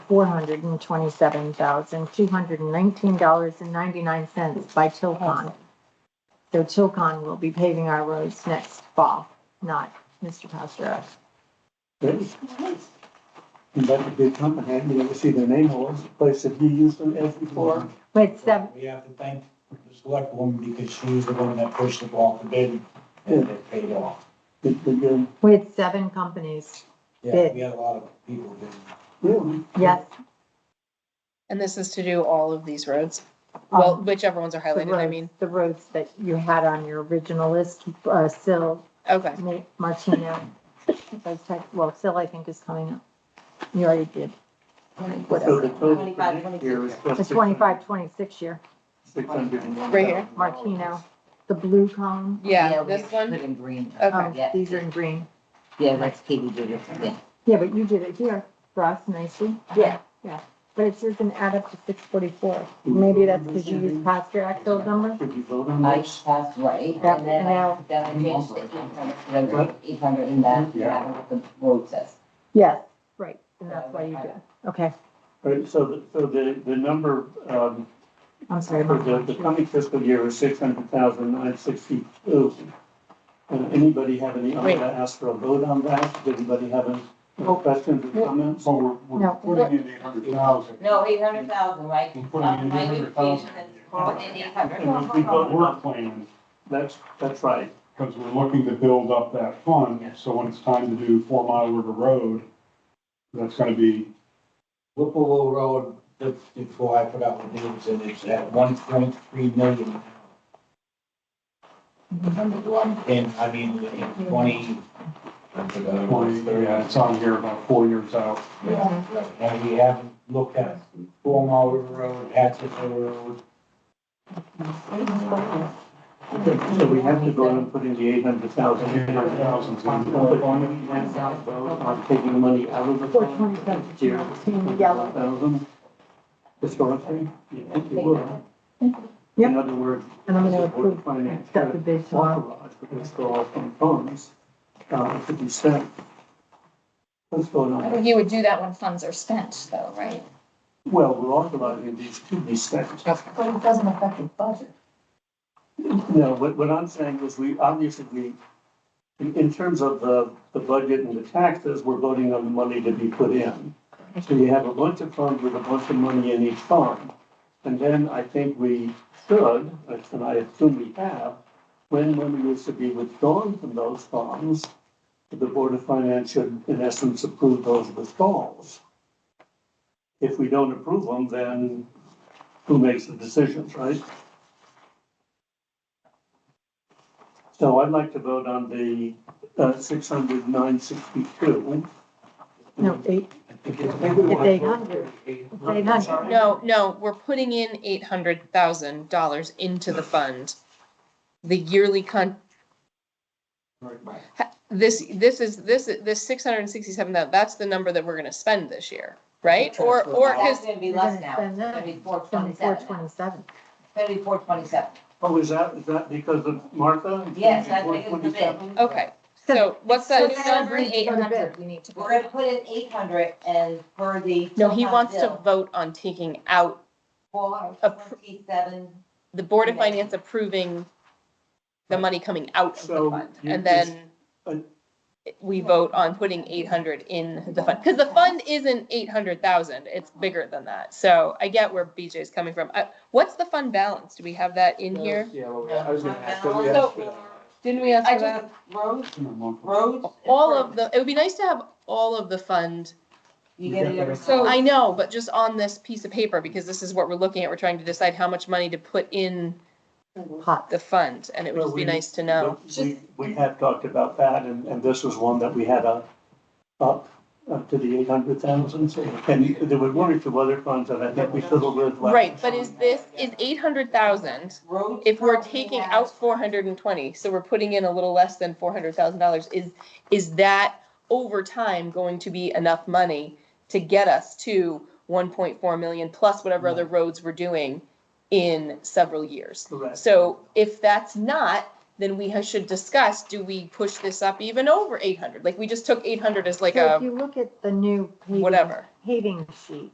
four hundred and twenty-seven thousand, two hundred and nineteen dollars and ninety-nine cents by Tilcon. So Tilcon will be paving our roads next fall, not Mr. Pasternak. Good. And that's a good company, you never see their name or place that you used them as before. But seven, We have to thank the select woman because she was the one that pushed the ball for bid and it paid off. Good, good, good. we had seven companies, Yeah, we had a lot of people bidding. Really? yes, And this is to do all of these roads, well, Um, whichever ones are the highlighted, I mean, roads, the roads that you had on your original list, uh, Sill, okay, Ma- Martino. Those type, well, Sill I think is coming up. You already did, So whatever. the total for next year is The plus twenty-five, twenty-six year, Six hundred. Right here. Martino, the blue cone. yeah, we this one, Put in green. Okay. Um, Yeah. these are in green. Yeah, that's Katie did it, yeah. Yeah, but you did it here for us nicely. Yeah. Yeah, but it doesn't add up to six forty-four. Maybe that's because you used Pastor Axel's number. Did you vote on I this? passed right, Yeah, and then I, now- then I changed the eight hundred, eight hundred in that, and I don't know what the road says. Yes, right, and that's why you did. it. Okay, Right, so the, so the, the number, um, I'm sorry. for the, the Mark. coming fiscal year is six hundred thousand nine sixty-two. Uh, anybody have any, I'm Wait. gonna ask for a vote on that, does anybody have any uh, questions or comments? So we're, we're No. putting in eight hundred thousand. No, eight hundred thousand, right? We're putting in eight hundred thousand. eight And we vote work plan, that's, that's right. Because we're looking to build up that fund, so when it's time to do Four Mile River Road, that's gonna be, Whipple Road, the- before I put out the names, and it's at one point three million. And I mean, in twenty. I forgot what well, it's thirty. yeah, it's on here about four years out. Yeah, right. And we haven't looked at Four Mile River Road, Access Road. So we have to go and put in the eight hundred thousand. Eight hundred thousand's on the But on the end, I'll vote on taking the money out of the. Four twenty-seven, Here. in yellow. Thousand. Historically, you think it would. Yep. In other words. And I'm gonna this board approve, finance accept the bid tomorrow. authorized, but it's all from funds, uh, to be spent. Let's go on. You would do that when funds are spent though, right? Well, we're authorizing these to be spent. But it doesn't affect the budget. No, what, what I'm saying is we, obviously, we, in, in terms of the, the budget and the taxes, we're voting on the money to be put in. So you have a bunch of funds with a bunch of money in each fund. And then I think we should, and I assume we have, when money is to be withdrawn from those funds, the Board of Finance should, in essence, approve those withdrawals. If we don't approve them, then who makes the decisions, right? So I'd like to vote on the uh, 600,962. No, eight, I think it's- it's eight hundred. It's eight hundred. no, no, we're putting in eight hundred thousand dollars into the fund. The yearly con, this, this is, this, this six hundred and sixty-seven, that's the number that we're gonna spend this year, right? Or, or, cause That's gonna be You're less gonna now, spend it's that. gonna be four Seventy-four, twenty-seven, twenty-seven. it's gonna be four twenty-seven. Oh, is that, is that because of Martha? Yes, I think it's the bid. 427? Okay, so what's that? So It's that'll not bring eight hundred we need to. We're gonna put in eight hundred and for the. No, he wants to bill, vote on taking out, $427. the Board of Okay. Finance approving the money coming out of the So fund, you and just- then uh, we vote on putting eight hundred in the fund, because the fund isn't eight hundred thousand, it's bigger than that, so I get where BJ's coming from. Uh, what's the fund balance? Do we have that in here? Yeah, well, we- I was gonna ask, that we So- asked for that. Didn't we ask I for that? just, roads, It's in a month. roads. All of the, it would be nice to have all of the fund You get it every. So I know, but just on this piece of paper, because this is what we're looking at, we're trying to decide how much money to put in Hot. the fund, and it would just be nice to know. We, we have talked about that, and, and this was one that we had up, up, up to the 800,000. And there were one or two other funds that I think we fiddled with. last Right, but is this, is eight hundred thousand, Roads if we're currently taking has- out four hundred and twenty, so we're putting in a little less than four hundred thousand dollars, is, is that over time going to be enough money to get us to one point four million plus whatever other roads we're doing in several years? Correct. So if that's not, then we ha- should discuss, do we push this up even over eight hundred? Like, we just took eight hundred as like So if a you look at the new paving, whatever. paving sheet,